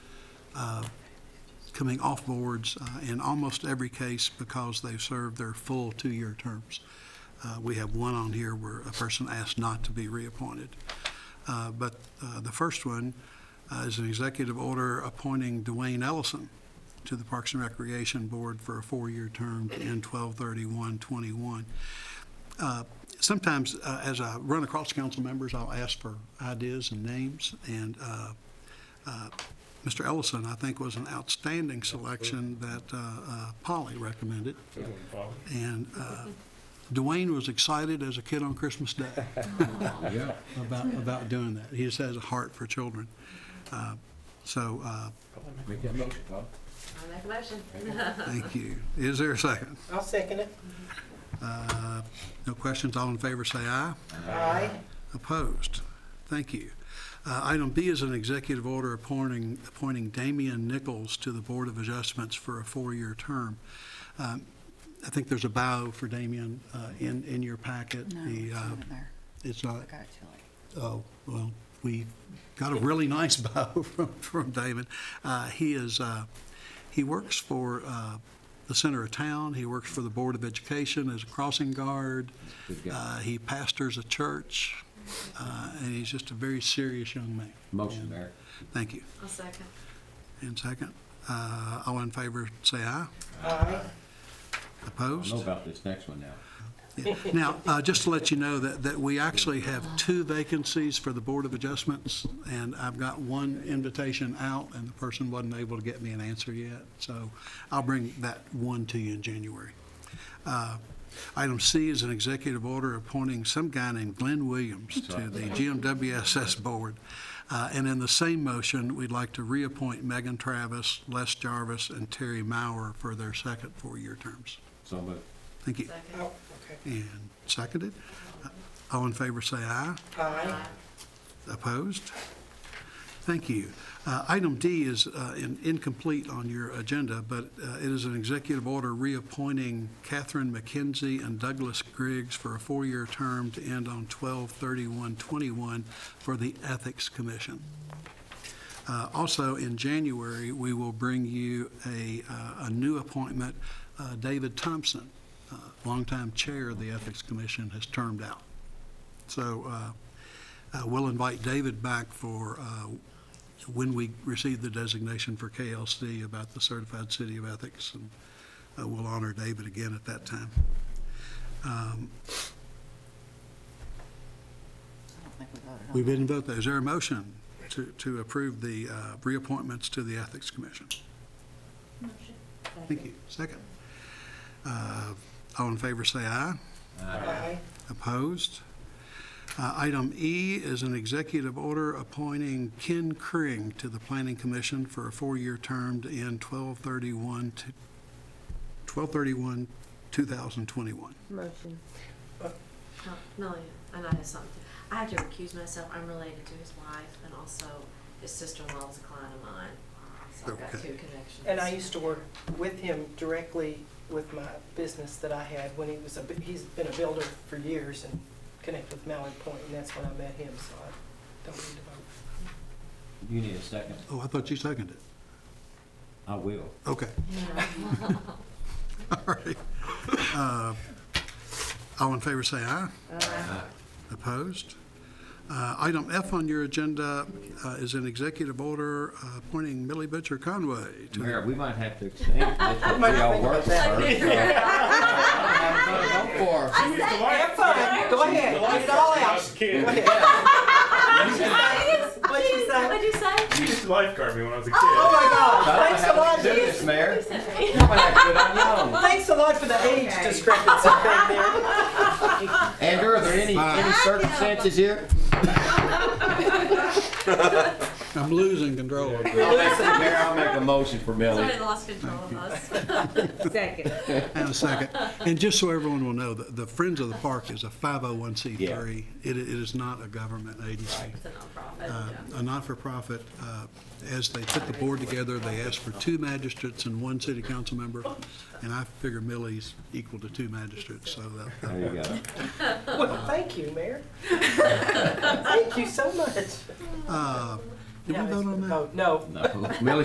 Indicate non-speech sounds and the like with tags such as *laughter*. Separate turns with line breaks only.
uh, coming off boards uh, in almost every case because they've served their full two-year terms. Uh, We have one on here where a person asked not to be reappointed. Uh, But uh, the first one uh, is an executive order appointing Dwayne Ellison to the Parks and Recreation Board for a four-year term to end 12/31/21. Uh, Sometimes, uh, as I run across council members, I'll ask for ideas and names, and uh, uh, Mr. Ellison, I think, was an outstanding selection that uh, uh, Polly recommended. And uh, Dwayne was excited as a kid on Christmas Day
Yeah.
about, about doing that. He just has a heart for children. Uh, So, uh,
Make that motion, Bob.
I make a motion.
thank you. Is there a second?
I'll second it.
Uh, No questions, all in favor, say aye.
Aye.
Opposed? Thank you. Uh, Item B is an executive order appointing, appointing Damian Nichols to the Board of Adjustments for a four-year term. Um, I think there's a bio for Damian uh, in, in your packet.
No,
The,
it's
uh,
not in there.
It's not,
I got it too late.
oh, well, we got a really nice *laughs* bio from, from David. Uh, He is, uh, he works for uh, the center of town, he works for the Board of Education as a crossing guard.
Good guy.
Uh, He pastors a church, uh, and he's just a very serious young man.
Motion,
And-
Mayor.
Thank you.
I'll second.
And second, uh, all in favor, say aye.
Aye.
I
Opposed?
know about this next one now.
Yeah. Now, uh, just to let you know that, that we actually have two vacancies for the Board of Adjustments, and I've got one invitation out, and the person wasn't able to get me an answer yet, so I'll bring that one to you in January. Uh, Item C is an executive order appointing some guy named Glenn Williams to the GMWSS Board. Uh, And in the same motion, we'd like to reappoint Megan Travis, Les Jarvis, and Terry Maurer for their second four-year terms.
So moved.
Thank you.
Second.
Oh, okay.
And seconded. All in favor, say aye.
Aye.
Opposed? Thank you. Uh, Item D is uh, in- incomplete on your agenda, but uh, it is an executive order reappointing Catherine McKenzie and Douglas Griggs for a four-year term to end on 12/31/21 for the Ethics Commission. Uh, Also, in January, we will bring you a uh, a new appointment, uh, David Thompson, uh, longtime chair of the Ethics Commission, has termed out. So uh, uh, we'll invite David back for uh, when we receive the designation for KLC about the Certified City of Ethics, and uh, we'll honor David again at that time. Um,
I don't think we voted on
We
it.
didn't vote those. Is there a motion to to approve the uh, reappointments to the Ethics Commission?
Motion.
Thank you. Second. Uh, All in favor, say aye.
Aye.
Opposed? Uh, Item E is an executive order appointing Ken Kring to the Planning Commission for a four-year term to end 12/31 to- 12/31, 2021.
Motion.
No, no, yeah, and I have something. I have to recuse myself. I'm related to his wife and also his sister-in-law is a client of mine. So I've got
Okay.
two connections.
And I used to work with him directly with my business that I had when he was a, bu- he's been a builder for years and connected with Mallard Point, and that's when I met him, so I don't need to vote.
You need a second.
Oh, I thought you seconded it.
I will.
Okay, *laughs*
Yeah.
all right. Uh, All in favor, say aye. Opposed? Uh, Item F on your agenda uh, is an executive order uh, appointing Millie Butcher Conway to the
Mayor, we might have to extend this, but
Might
we all
think
work
about that.
first. Go for it.
Have fun, go ahead, get it all out. Go
Yeah.
ahead. What'd you say?
What'd you say?
She used to lifeguard me when I was a kid.
Oh my God, thanks a
How do you do
lot,
this, Mayor?
Say.
You might have to do it on your own.
thanks a lot for the age discrepancy right there.
Andrew, are there any, any circumstances here?
I'm losing control of it.
Mayor, I'll make a motion for Millie.
Somebody lost control of us.
Second.
And a second. And just so everyone will know, the the Friends of the Park is a 501c3. It i- it is not a government agency,
It's a nonprofit,
Uh,
yeah.
a not-for-profit. uh, As they put the board together, they asked for two magistrates and one city council member, and I figure Millie's equal to two magistrates, so uh, that- that-
There you go.
Well, thank you, Mayor. Thank you so much. Oh,
did we vote on that?
No, no.
No, Millie